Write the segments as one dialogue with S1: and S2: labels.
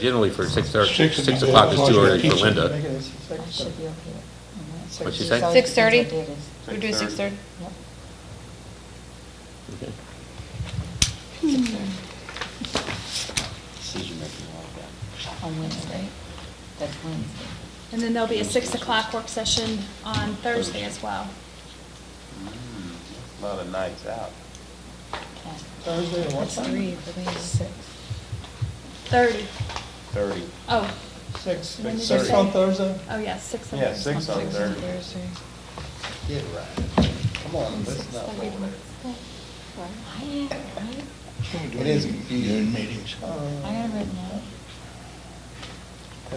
S1: Generally for six, or
S2: Six would
S1: six
S2: be
S1: o'clock
S2: good.
S1: is too early for
S2: Kitchen.
S1: Linda.
S3: I should be okay. Mm-hmm.
S1: What'd she say?
S4: 6:30?
S3: Yep.
S4: We do six thirty?
S1: Okay.
S5: Decision making like
S3: On Wednesday. That's Wednesday.
S6: And then there'll be a six o'clock work session on Thursday as well.
S5: that. A Mm, lot of nights out.
S3: Okay.
S2: Thursday, what
S3: That's three
S2: time?
S3: for me, six.
S6: Thirty.
S5: Thirty.
S6: Oh,
S2: Six,
S6: When did
S2: six
S6: you
S2: six
S6: say?
S2: on Thursday?
S6: oh yeah, six. on
S5: Yeah,
S6: Thursday.
S5: six on Thursday.
S3: Thursday.
S5: Get right. Come on, listen up.
S3: I am, right?
S5: It is confusing.
S2: meetings.
S3: I am right now.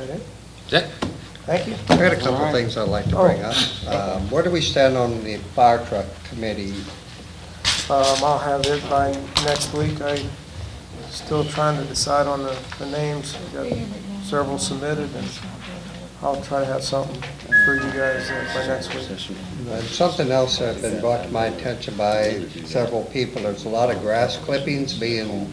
S1: Is that,
S7: Thank you. I had a couple of things I'd like to bring up. Um, Where do we stand on the fire truck committee?
S8: Um, I'll have it by next week. I'm still trying to decide on the, the names. I've
S3: I
S8: got
S3: am right now.
S8: several submitted, and
S3: It's not good.
S8: I'll try to have something for you guys uh, by next week.
S7: And Uh, something else that had been brought to my attention by several people, there's a lot of grass clippings being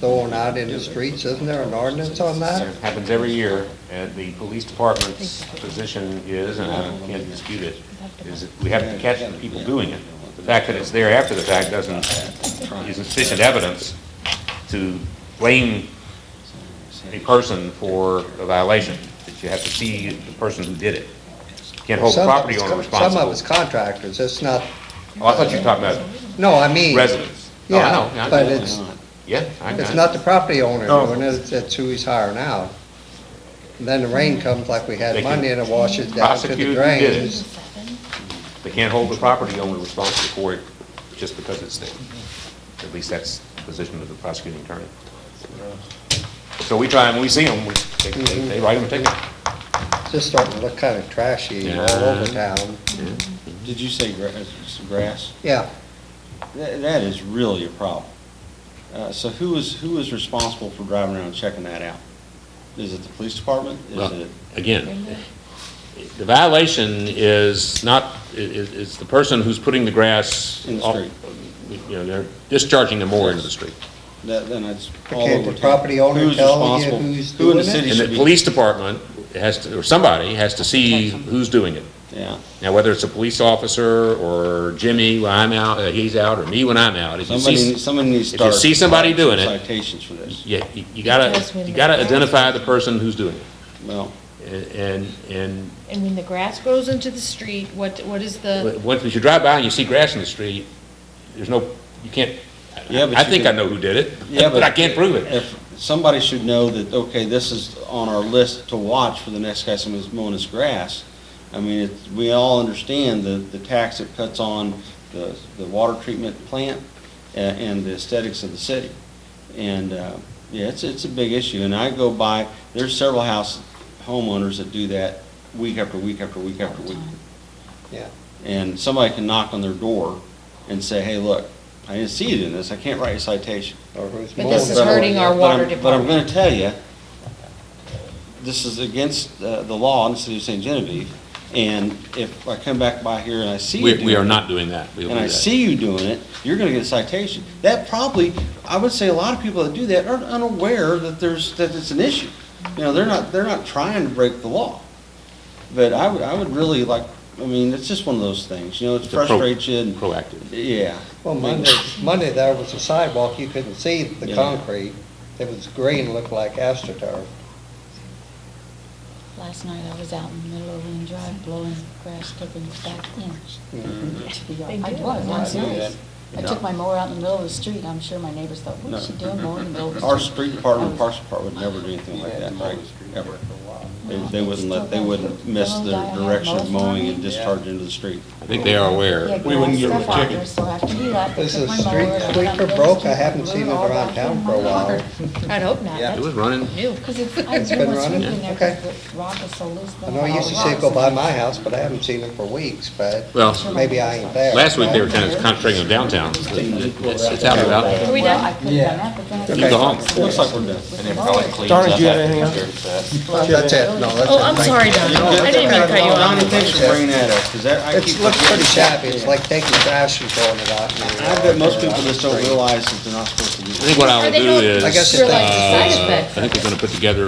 S7: thrown out in the streets, isn't there an ordinance on that?
S9: It happens every year, and the police department's position is, and I can't dispute it, is that we have to catch the people doing it. The fact that it's there after the fact doesn't, isn't sufficient evidence to blame a person for a violation, that you have to see the person who did it. Can't hold the
S7: Some of
S9: property
S7: it's-
S9: owner
S7: Some of
S9: responsible.
S7: it's contractors, it's not,
S9: Oh, I thought you were talking about
S7: no, I mean.
S9: residents. Oh, I know,
S7: Yeah,
S9: I
S7: but
S9: know.
S7: it's,
S9: Yeah, I got
S7: it's
S9: it.
S7: not the property owner
S8: No.
S9: Oh.
S7: doing it, it's who he's hiring out. And Then the rain comes like we
S9: They
S7: had
S9: can
S7: Monday and it washes down to
S9: prosecute
S7: the
S9: who did it.
S7: drains.
S9: They can't hold the property owner responsible for it just because it's there. At least that's the position of the prosecuting attorney. So we try, and when we see them, we, they- they they write them a ticket.
S7: Mm-hmm. just starting to look kind of trashy all over town.
S5: Did you say grass, it's grass?
S7: Yeah,
S5: That, that is really a problem. Uh, so who is, who is responsible for driving around checking that out? Is it the police department? Is
S9: Well,
S5: it?
S9: again, the violation is not, i- i- is the person who's putting the grass.
S5: In the
S9: off-
S5: street.
S9: You know, they're discharging them more into the street.
S5: That, then it's all
S7: Okay,
S5: over
S7: the
S5: town.
S7: property owner
S5: Who's
S7: tell you
S5: responsible?
S7: who's
S5: Who in the
S7: doing it?
S5: city
S9: And the
S5: should be?
S9: police department has to, or somebody has to see who's doing it.
S5: Yeah,
S9: Now, whether it's a police officer or Jimmy when I'm out, uh, he's out, or me when I'm out, if you
S5: somebody,
S9: see,
S5: somebody needs to
S9: if you
S5: start.
S9: see somebody doing it-
S5: Citations for this.
S9: yeah, you you gotta, you gotta identify the person who's doing it.
S5: Well,
S9: And, and,
S4: And when the grass grows into the street, what, what is the,
S9: and once you drive by and you see grass in the street, there's no, you can't,
S5: Yeah, but
S9: I
S5: you
S9: think I
S5: can-
S9: know who did
S5: Yeah,
S9: it, but I can't prove it.
S5: If, somebody should know that, okay, this is on our list to watch for the next guy somebody's mowing his grass. I mean, it's, we all understand the, the tax it puts on the, the water treatment plant a- and the aesthetics of the city. And, uh, yeah, it's, it's a big issue, and I go by, there's several house homeowners that do that week after week after week after week.
S7: yeah.
S5: And somebody can knock on their door and say, hey, look, I didn't see you doing this, I can't write you a citation.
S7: Or who's
S4: But this is
S7: mowing it.
S4: hurting our
S5: But I'm-
S4: water
S5: But I'm
S4: department.
S5: gonna tell you, this is against uh, the law in the city of St. Genevieve, and if I come back by here and I see you
S9: We,
S5: doing
S9: we are
S5: it,
S9: not doing that. We will
S5: And I
S9: do that.
S5: see you doing it, you're gonna get a citation. That probably, I would say a lot of people that do that are unaware that there's, that it's an issue. You know, they're not, they're not trying to break the law. But I would, I would really like, I mean, it's just one of those things, you know, it
S9: It's a pro-
S5: frustrates you and,
S9: Proactive.
S5: yeah.
S7: Well, Monday, Monday there was a sidewalk, you couldn't see the
S5: Yeah.
S7: concrete. It was green, looked like astroturf.
S3: Last night I was out in the middle of Lynn Drive blowing grass clippings back in. To be
S4: They
S3: honest, I
S4: do.
S3: was, I'm
S5: Yeah, I do
S3: serious. I took my mower out in the middle of the street. I'm sure my neighbors thought, what's she doing mowing in the middle of the street?
S5: Our street department, parks department would never do anything like that, right? Ever. They, they wouldn't let, they wouldn't miss the direction of mowing and discharge into the street.
S9: I think they are aware.
S3: Yeah,
S2: We wouldn't give
S3: stuff
S2: them a
S3: out
S2: ticket.
S3: there, So after you left, I
S7: Is
S3: took
S7: the
S3: my mower
S7: street
S3: and I
S7: sweeper
S3: went down the
S7: broke? I
S3: street
S7: haven't
S3: and
S7: seen
S3: blew
S7: it
S3: all
S7: around
S3: back
S7: town
S3: in
S7: for a
S3: my
S7: while.
S3: yard.
S4: I'd hope not,
S7: Yeah.
S9: It was
S4: that's
S9: running.
S4: new.
S3: Because it's, I
S7: It's
S3: do
S7: been
S3: want
S7: running?
S3: sweeping there
S7: Okay.
S3: 'cause the rock is so loose.
S7: I know you used to see it go by my house, but I haven't seen it for weeks, but
S9: Well,
S7: maybe I ain't there.
S9: last week they were kind of concentrating on downtown. It's, it's out and about.
S4: Are we
S3: Well,
S4: done?
S3: I could have done that, but then. I
S7: Okay.
S9: You go home.
S5: Looks like we're done.
S3: With the
S9: And
S3: mower.
S8: Darn it, do you have anything else?
S7: That's it, no, that's it.
S4: Oh, I'm
S7: Thank you.
S4: sorry, Don. I didn't mean to cut you
S5: Donnie,
S4: off.
S5: thanks for bringing that up, because that, I keep.
S7: It looks pretty shabby, it's
S5: Yeah.
S7: like taking trash and throwing it out. in the
S5: I bet most
S7: yard or
S5: people just don't
S7: out in the street.
S5: realize that they're not supposed to do
S4: think what I
S9: Or
S4: will
S9: they
S4: do
S9: don't
S4: is,
S10: I guess
S4: uh,
S10: it's-
S9: realize the side
S4: I
S9: effects.
S4: think we're gonna put together